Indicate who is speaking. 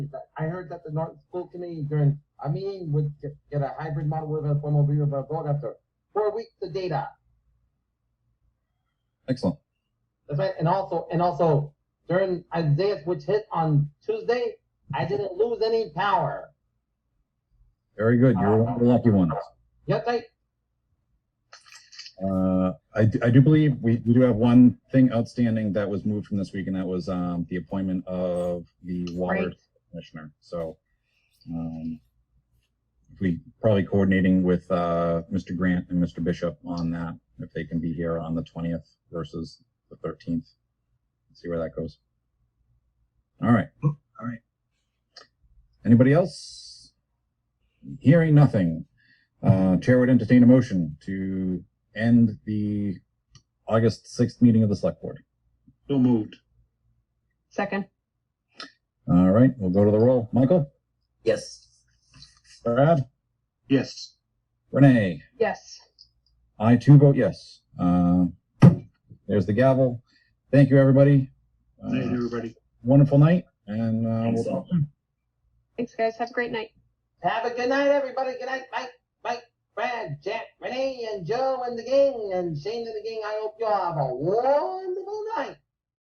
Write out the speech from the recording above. Speaker 1: I heard that the North School Committee during a meeting would get, get a hybrid model with a formal view of a blog after four weeks of data.
Speaker 2: Excellent.
Speaker 1: That's right. And also, and also during Isaiah's, which hit on Tuesday, I didn't lose any power.
Speaker 2: Very good. You're one of the lucky ones.
Speaker 1: Yes, I,
Speaker 2: Uh, I, d- I do believe we, we do have one thing outstanding that was moved from this week, and that was um, the appointment of the water
Speaker 3: Right.
Speaker 2: commissioner. So, um, if we probably coordinating with uh, Mr. Grant and Mr. Bishop on that, if they can be here on the 20th versus the 13th. See where that goes. All right. Oh, All right. Anybody else? Hearing nothing. Uh, Chair would entertain a motion to end the August 6th meeting of the Select Board.
Speaker 4: So moved.
Speaker 3: Second,
Speaker 2: All right, we'll go to the roll. Michael,
Speaker 5: Yes.
Speaker 2: Brad,
Speaker 4: Yes.
Speaker 2: Renee.
Speaker 3: yes.
Speaker 2: I too vote yes. Uh, there's the gavel. Thank you, everybody.
Speaker 4: Night,
Speaker 2: Uh,
Speaker 4: everybody.
Speaker 2: wonderful night, and uh, we'll
Speaker 5: Thanks, all.
Speaker 3: Thanks, guys. Have a great night.
Speaker 1: have a good night, everybody. Good night, Mike, Mike, Brad, Jack, Renee, and Joe, and the gang, and Shane, and the gang. I hope you all have a wonderful night.